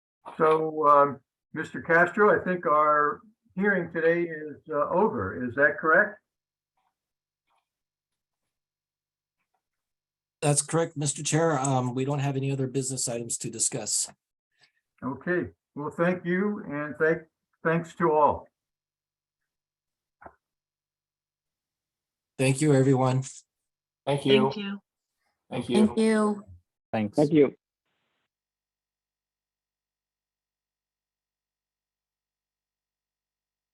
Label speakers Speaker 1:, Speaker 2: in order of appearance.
Speaker 1: So, um, Mr. Castro, I think our hearing today is uh, over. Is that correct?
Speaker 2: That's correct, Mr. Chair. Um, we don't have any other business items to discuss.
Speaker 1: Okay, well, thank you and thank, thanks to all.
Speaker 2: Thank you, everyone.
Speaker 3: Thank you.
Speaker 4: Thank you.
Speaker 3: Thank you.
Speaker 5: Thank you.
Speaker 6: Thanks.
Speaker 7: Thank you.